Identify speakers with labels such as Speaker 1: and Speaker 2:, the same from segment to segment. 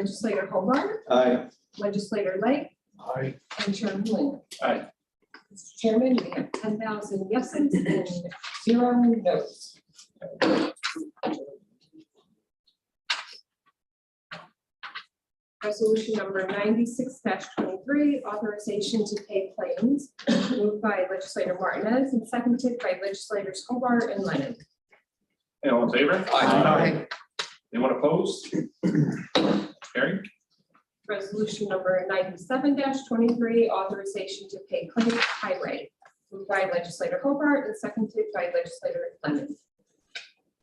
Speaker 1: Legislator Hobart,
Speaker 2: Aye.
Speaker 1: Legislator Light,
Speaker 3: Aye.
Speaker 1: and Chairman Linger.
Speaker 3: Aye.
Speaker 1: Mr. Chairman, we have ten thousand yeses and zero noes. Resolution number ninety-six twenty-three, authorization to pay claims, moved by legislator Martinez and seconded by legislators Hobart and Lennon.
Speaker 3: Hey, all in favor?
Speaker 2: Aye.
Speaker 3: Anyone opposed? Carried.
Speaker 1: Resolution number ninety-seven twenty-three, authorization to pay claims highway, moved by legislator Hobart and seconded by legislator Lennon.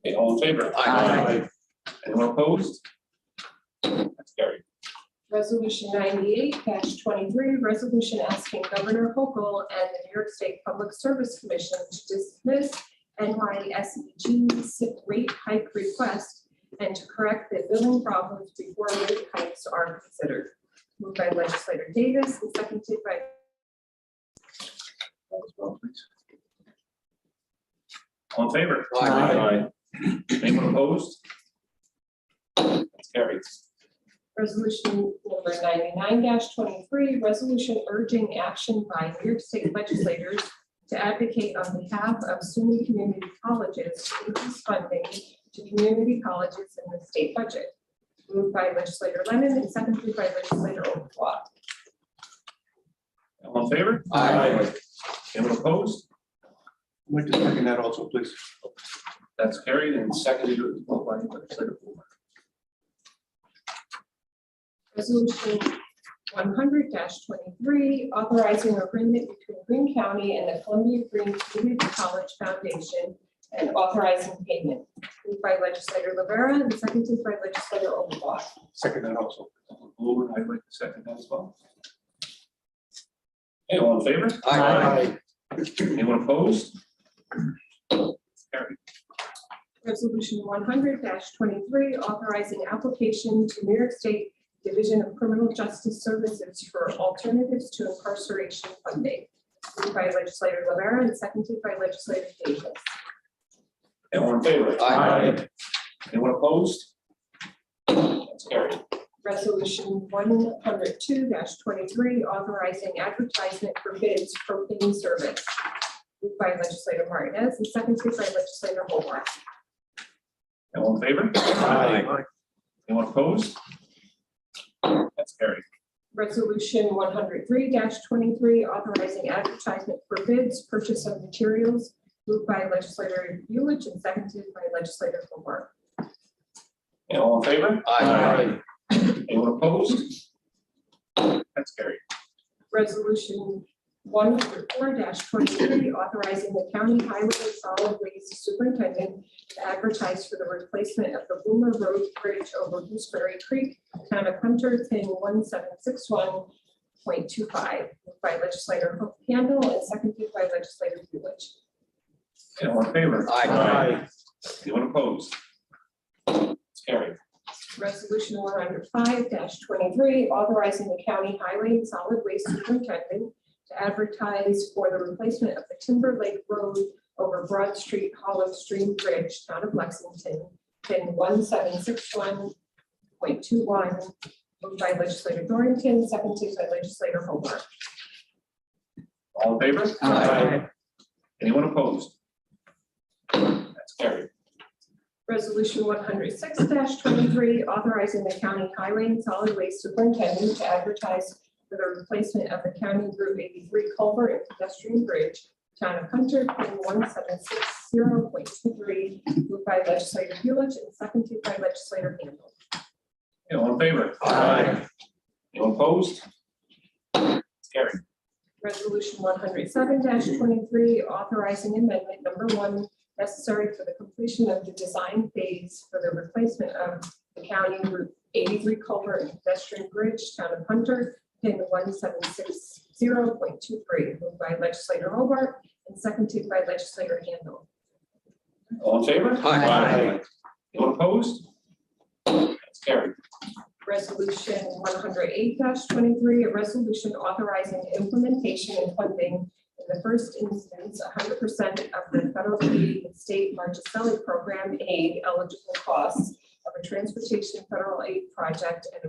Speaker 3: Hey, all in favor?
Speaker 2: Aye.
Speaker 3: Anyone opposed? That's carried.
Speaker 1: Resolution ninety-eight twenty-three, resolution asking Governor Hochul and the New York State Public Service Commission to dismiss NYSEG SIP E rate hike request and to correct the billing problems before rate hikes are considered. Moved by legislator Davis and seconded by
Speaker 3: All in favor?
Speaker 2: Aye.
Speaker 3: Aye. Anyone opposed? That's carried.
Speaker 1: Resolution number ninety-nine twenty-three, resolution urging action by New York State legislators to advocate on behalf of SUNY community colleges to increase funding to community colleges in the state budget. Moved by legislator Lemon and seconded by legislator Overblock.
Speaker 3: All in favor?
Speaker 2: Aye.
Speaker 3: Anyone opposed?
Speaker 2: I'd like to second that also, please.
Speaker 3: That's carried and seconded as well by legislator Blumer.
Speaker 1: Resolution one hundred twenty-three, authorizing agreement between Green County and the Columbia Green Community College Foundation and authorizing payment. Moved by legislator Rivera and seconded by legislator Overblock.
Speaker 2: Second that also.
Speaker 3: Blumer, I'd like to second that as well. Hey, all in favor? Anyone opposed? Carried.
Speaker 1: Resolution one hundred twenty-three, authorizing application to New York State Division of Criminal Justice Services for alternatives to incarceration funding. Moved by legislator Rivera and seconded by legislator Davis.
Speaker 3: Anyone in favor?
Speaker 2: Aye.
Speaker 3: Anyone opposed? That's carried.
Speaker 1: Resolution one hundred two twenty-three, authorizing advertisement for bids for cleaning service. Moved by legislator Martinez and seconded by legislator Hobart.
Speaker 3: Anyone in favor?
Speaker 2: Aye.
Speaker 3: Anyone opposed? That's carried.
Speaker 1: Resolution one hundred three twenty-three, authorizing advertisement for bids, purchase of materials. Moved by legislator Lewis and seconded by legislator Hobart.
Speaker 3: Anyone in favor?
Speaker 2: Aye.
Speaker 3: Anyone opposed? That's carried.
Speaker 1: Resolution one hundred four twenty-three, authorizing the county highway and solid waste superintendent to advertise for the replacement of the Boomer Road Bridge over Gooseberry Creek, town of Hunter, thing one seven six one point two five, by legislator Handle and seconded by legislator Lewis.
Speaker 3: Anyone in favor?
Speaker 2: Aye.
Speaker 3: Anyone opposed? That's carried.
Speaker 1: Resolution one hundred five twenty-three, authorizing the county highway and solid waste superintendent to advertise for the replacement of the Timber Lake Road over Broad Street Hollow Stream Bridge, town of Lexington, pin one seven six one point two one, moved by legislator Dorrington, seconded by legislator Hobart.
Speaker 3: All in favor?
Speaker 2: Aye.
Speaker 3: Anyone opposed? That's carried.
Speaker 1: Resolution one hundred six twenty-three, authorizing the county highway and solid waste superintendent to advertise for the replacement of the county Route eighty-three culvert and pedestrian bridge, town of Hunter, pin one seven six zero point two three, moved by legislator Lewis and seconded by legislator Handle.
Speaker 3: Anyone in favor?
Speaker 2: Aye.
Speaker 3: Anyone opposed? That's carried.
Speaker 1: Resolution one hundred seven twenty-three, authorizing amendment number one necessary for the completion of the design phase for the replacement of the county Route eighty-three culvert and pedestrian bridge, town of Hunter, pin one seven six zero point two three, moved by legislator Hobart and seconded by legislator Handle.
Speaker 3: All in favor?
Speaker 2: Aye.
Speaker 3: Anyone opposed? That's carried.
Speaker 1: Resolution one hundred eight twenty-three, a resolution authorizing implementation and funding in the first instance, hundred percent of the federal aid and state Marchicelli program aid eligible costs of a transportation federal aid project and